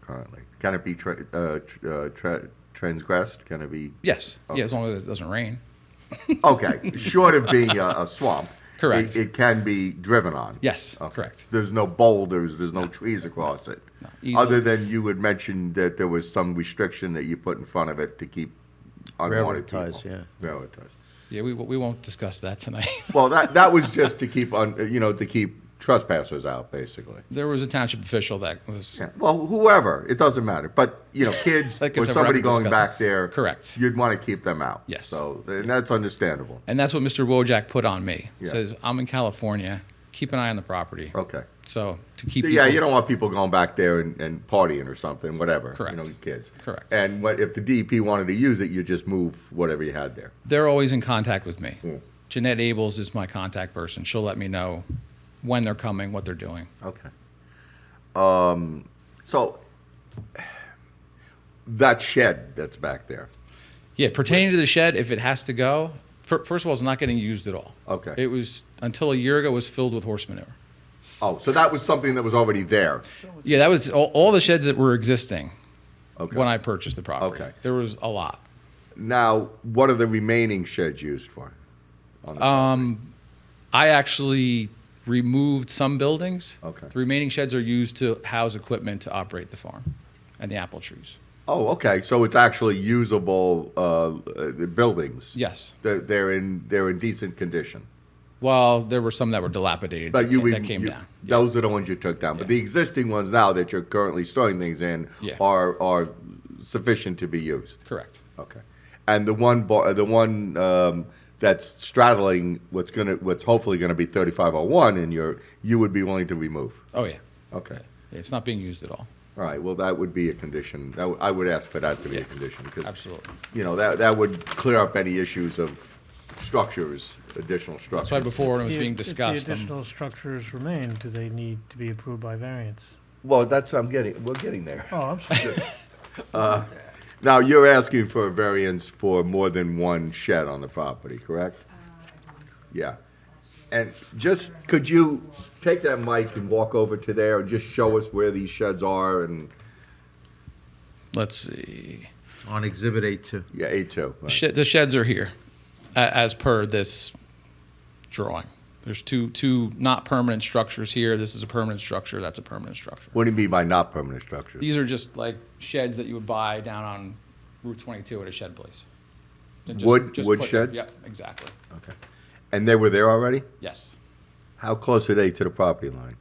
currently? Can it be tra- uh, tr- uh, tra- transgressed? Can it be? Yes. Yeah, as long as it doesn't rain. Okay, short of being a, a swamp. Correct. It, it can be driven on. Yes, Okay. correct. There's no boulders, there's no trees across it. Easy. Other than you had mentioned that there was some restriction that you put in front of it to keep unwanted Railroad people. ties, yeah. Railroad ties. Yeah, we, we won't discuss that tonight. Well, that, that was just to keep on, you know, to keep trespassers out, basically. there was a township official that was Yeah. Well, whoever, it doesn't matter. But, you know, kids Like I or said, we're not somebody gonna going discuss it. back there. Correct. You'd want to keep them out. Yes. So, and that's understandable. And that's what Mr. Wojak put on me. Yeah. Says, I'm in California, keep an eye on the property. Okay. So to keep Yeah, people- you don't want people going back there and, and partying or something, whatever. Correct. You know, kids. Correct. And what, if the DEP wanted to use it, you just move whatever you had there. they're always in contact with me. Jeanette Abels is my contact person. She'll let me know when they're coming, what they're doing. Okay. Um, so that shed that's back there. Yeah, pertaining to the shed, if it has to go, fir- first of all, it's not getting used at all. Okay. It was until a year ago it was filled with horse manure. Oh, so that was something that was already there. Yeah, that was all, all the sheds that were existing Okay. when I purchased the property. Okay. There was a lot. Now, what are the remaining sheds used for? I actually removed some buildings. Okay. The remaining sheds are used to house equipment to operate the farm and the apple trees. Oh, okay. So it's actually usable uh, uh, buildings. Yes. They're, they're in they're in decent condition. Well, there were some that were dilapidated But that, you came, re- that came you- down. Those are the ones you took down. But Yeah. the existing ones now that you're currently storing things in Yeah. are are sufficient to be used. Correct. Okay. And the one bar, the one um, that's straddling what's gonna what's hopefully gonna be 3501, and you're you would be willing to remove. Oh, yeah. Okay. Yeah, It's not being used at all. All right, well, that would be a condition, That w- I would ask for that to be a condition, because. Absolutely. You know, that, that would clear up any issues of structures, additional structures. That's why before when it was If- being If discussed, the um, additional structures remain, do they need to be approved by variance? Well, that's, I'm getting, we're getting there. Oh, I'm sorry. Now, you're asking for a variance for more than one shed on the property, correct? Yeah. And just, could you take that mic and walk over to there and just show us where these sheds are and, let's see. On Exhibit A2. yeah, A2. right. Shed, the sheds are here, a- as per this drawing. There's two two not permanent structures here. This is a permanent structure. That's a permanent structure. What do you mean by not permanent structures? These are just like sheds that you would buy down on Route 22 at a shed place. And Wood- wood put- sheds? Yep, exactly. Okay. And they were there already? Yes. How close are they to the property line?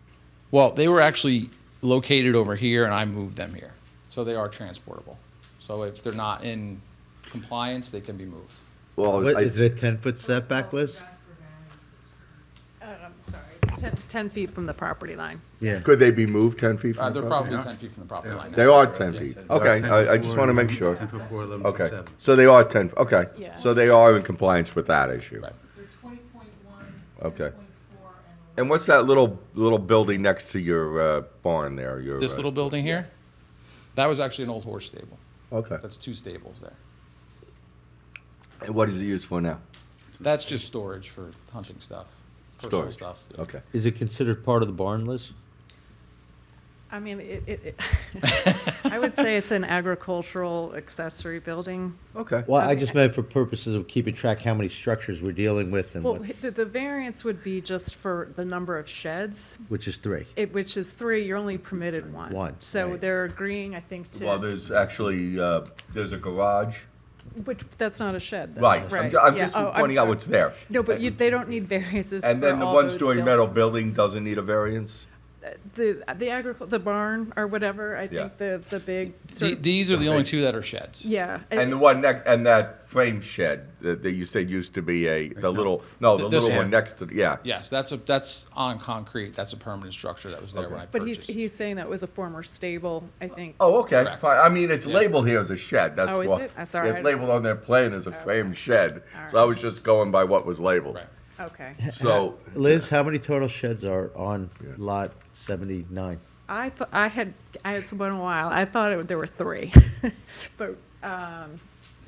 Well, they were actually located over here, and I moved them here, so they are transportable. So if they're not in compliance, they can be moved. Well, What, I- is it a 10-foot setback list? I'm sorry, it's 10 10 feet from the property line. Yeah. could they be moved 10 feet Uh, from the they're property? probably 10 feet from the property line. now. They are 10 feet. Yes. Okay, I I just want to make sure. Okay, so they are 10, okay. Yeah. So they are in compliance with that issue. Right. They're twenty point one, Okay. twenty point four, and And what's that little, little building next to your uh, barn there? Your, This uh, little building here, that was actually an old horse stable. uh, Okay. That's two stables there. And what is it used for now? That's just storage for hunting stuff, personal Storage. stuff. yeah. Okay. Is it considered part of the barn list? I mean, it, it, it- I would say it's an agricultural accessory building. Okay. Well, I just meant for purposes of keeping track how many structures we're dealing with and Well, what's, the, the variance would be just for the number of sheds, which is three. it, which is three, you're only permitted one. One, So right. they're agreeing, I think, Well, to, there's actually, uh, there's a garage. which, that's not a shed, though. Right. I'm ju- I'm yeah. just Oh, pointing out sorry. what's there. No, but you, they don't need variances And for then the all those one-story metal building buildings. doesn't need a variance? The, the agricul, the barn or whatever, I Yeah. think the, the big, sort The- of- These are the only two that are sheds. yeah. And the one next, and that frame shed that, that you said used to be a, the little, no, the Th- this little one one. next to, yeah. Yes, that's a, that's on concrete. That's a permanent structure that was there when I But he's, purchased. he's saying that was a former stable, I think. Oh, okay, Correct. fine. I mean, it's labeled here as a shed, that's Oh, is why. it? I'm sorry, I It's don't- labeled on their plan as a frame shed, so I was just going by what was labeled. Right. Okay. So, Liz, how many total sheds are on Yeah. lot 79? I thought, I had, I had someone a while, I thought it, there were three. But, um, The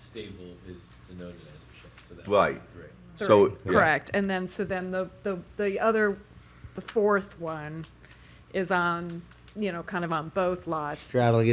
stable is denoted as a shed, so that would be right, three. so. three, yeah. correct. And then, so then the, the, the other, the fourth one is on, you know, kind of on both lots. Straddling